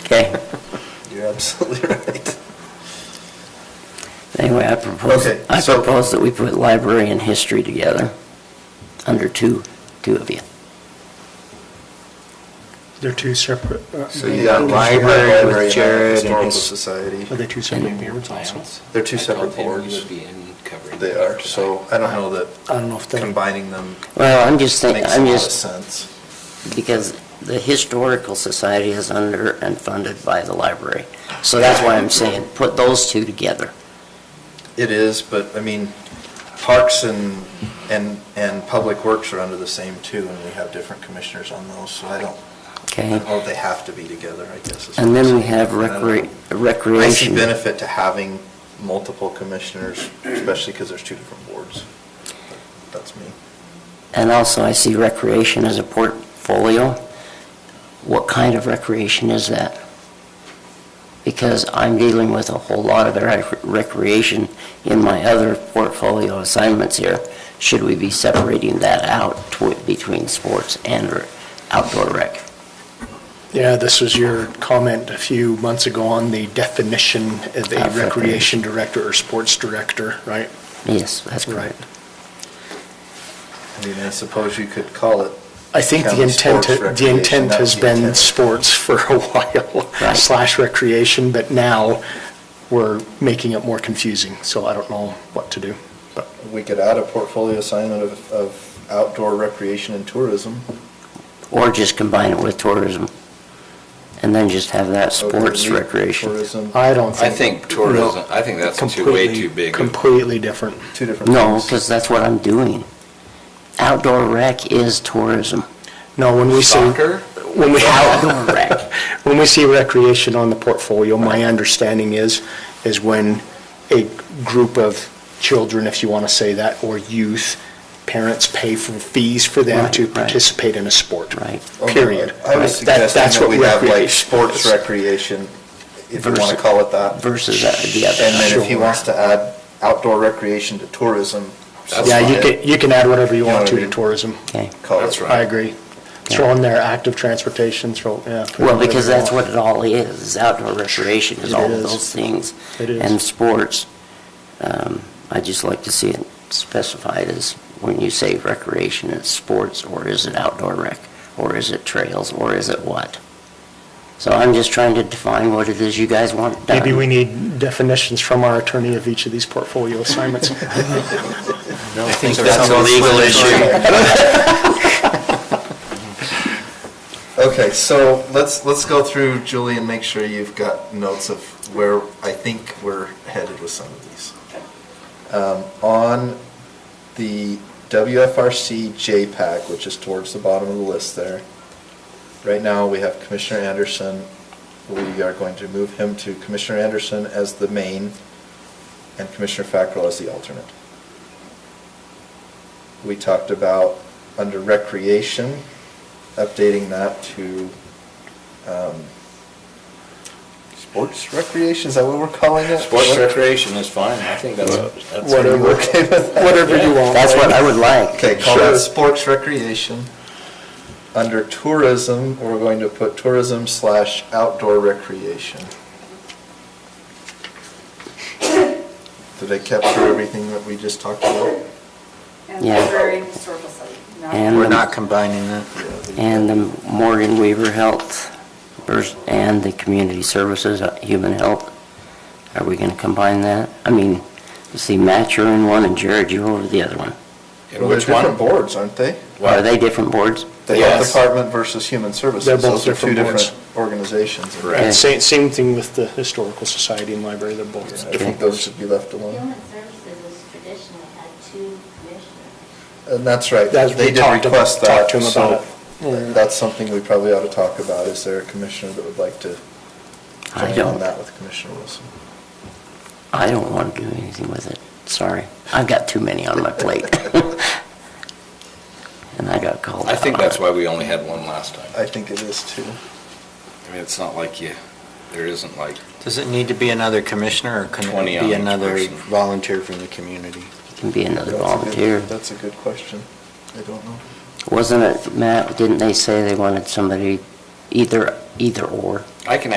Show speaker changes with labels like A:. A: Okay,
B: You're absolutely right.
A: anyway, I propose,
B: Okay,
A: I
B: so-
A: propose that we put library and history together, under two, two of you.
C: They're two separate. uh,
B: So
C: they-
B: you got
C: they-
B: library with Jared and
D: Historical
B: his- Society.
C: Are they two separate boards also?
B: They're two separate
D: I
B: boards.
D: told him you would be in covering.
B: They are, so I don't know that
C: I don't know if they.
B: combining them
A: Well, I'm just thinking,
B: makes a
A: I'm
B: lot of
A: just,
B: sense.
A: because the Historical Society is under and funded by the library. So that's why I'm saying, put those two together.
B: It is, but I mean, parks and, and, and public works are under the same too, and we have different commissioners on those, so I don't, I
A: Okay.
B: don't know if they have to be together, I guess. is
A: And
B: what I'm
A: then we
B: saying.
A: have
B: And I don't
A: recre-
B: know. I see
A: recreation.
B: benefit to having multiple commissioners, especially because there's two different boards. But That's me.
A: And also, I see recreation as a portfolio. What kind of recreation is that? Because I'm dealing with a whole lot of rec- recreation in my other portfolio assignments here. Should we be separating that out tw- between sports and r- outdoor rec?
C: Yeah, this was your comment a few months ago on the definition of a
A: Of recreation.
C: recreation director or sports director, right?
A: Yes, that's
C: Right.
A: correct.
B: I mean, I suppose you could call it.
C: I think the
B: county
C: intent,
B: sports
C: the
B: recreation,
C: intent
B: that
C: has
B: was the
C: been
B: intent.
C: sports for a while
A: Right.
C: slash recreation, but now we're making it more confusing, so I don't know what to do. But
B: We could add a portfolio assignment of, of outdoor recreation and tourism.
A: Or just combine it with tourism, and then just have that
B: So we
A: sports
B: leave
A: recreation.
B: Tourism,
C: I don't
D: I
C: think.
D: think tourism, I think that's too, way
C: Completely-
D: too big.
C: Completely different.
B: two different
A: No,
B: things.
A: because that's what I'm doing. Outdoor rec is tourism.
C: No, when we say.
D: Soccer?
C: When we.
A: Outdoor rec.
C: When we see recreation on the portfolio, my understanding is, is when a group of children, if you want to say that, or youth, parents pay for fees for them
A: Right,
C: to
A: right.
C: participate in a sport.
A: Right.
C: Period.
B: I was
C: Right. That-
B: suggesting
C: That's
B: that
C: what
B: we have like
C: recreation
B: sports
C: is.
B: recreation, if you want to
A: Versus-
B: call it that.
A: versus the other.
B: And then if he
C: Sure.
B: wants to add outdoor recreation to tourism.
D: That's
C: Yeah, you
D: fine.
C: can, you can add whatever you
B: You know
C: want
B: what I
C: to to
B: mean?
C: tourism.
A: Okay.
B: Call it.
D: That's right.
C: I agree. Throw in there active transportation, throw, yeah. put
A: Well,
C: whatever
A: because
C: you
A: that's
C: want.
A: what it all is, is outdoor recreation is
C: It
A: all of
C: is.
A: those things.
C: It is.
A: And sports, um, i just like to see it specified as, when you say recreation, it's sports, or is it outdoor rec? Or is it trails, or is it what? So I'm just trying to define what it is you guys want done.
C: Maybe we need definitions from our attorney of each of these portfolio assignments.
B: I think
D: that's a legal
B: Okay, so let's, let's go through, Julie, and make sure you've got notes of where I think we're headed with some of these. Um, On the WFRC JPAC, which is towards the bottom of the list there, right now, we have Commissioner Anderson. We are going to move him to Commissioner Anderson as the main and Commissioner Fackrell as the alternate. We talked about, under recreation, updating that to um, sports recreation, is that what we're calling it?
D: Sports recreation is fine, I think that's, that's.
B: Whatever, okay with that?
C: Whatever you want.
A: That's what I would like.
B: Okay, call that
C: Sure.
B: sports recreation. Under tourism, we're going to put tourism slash outdoor recreation. Did I capture everything that we just talked about?
E: And
A: Yeah.
E: library and historical study. No.
A: And the-
D: combining that.
A: And the Morgan Weaver Health vers- and the Community Services, uh, Human Health. Are we going to combine that? I mean, you see Matt, you're in one, and Jared, you're over the other one.
B: Well, they're different boards, aren't they?
A: Are they different boards?
B: The health
D: Yes.
B: department versus human services.
C: They're both
B: Those are two
C: different boards.
B: different organizations.
D: Correct.
C: Same, same thing with the Historical Society and Library, they're both.
B: I think those should be left alone.
F: Human Services has traditionally had two commissioners.
B: And Uh, that's right.
C: That's- we
B: They did
C: talked ab-
B: request that.
C: talked to 'em
B: so
C: about it. Yeah.
B: That's something we probably ought to talk about. Is there a commissioner that would like to
A: I
B: join on
A: don't.
B: that with Commissioner Wilson?
A: I don't want to do anything with it, sorry. I've got too many on my plate. And I got called
D: I
A: out
D: think
A: on
D: that's
A: it.
D: why we only had one last time.
B: I think it is too.
D: I mean, it's not like you, there isn't like,
G: Does it need to be another commissioner, or can
D: 20
G: it
D: on
G: be
D: each
G: another
D: person.
G: volunteer from the community?
A: It Can be another
B: That's a good-
A: volunteer.
B: That's a good question. I don't know.
A: Wasn't it, Matt, didn't they say they wanted somebody either, either or?
D: I can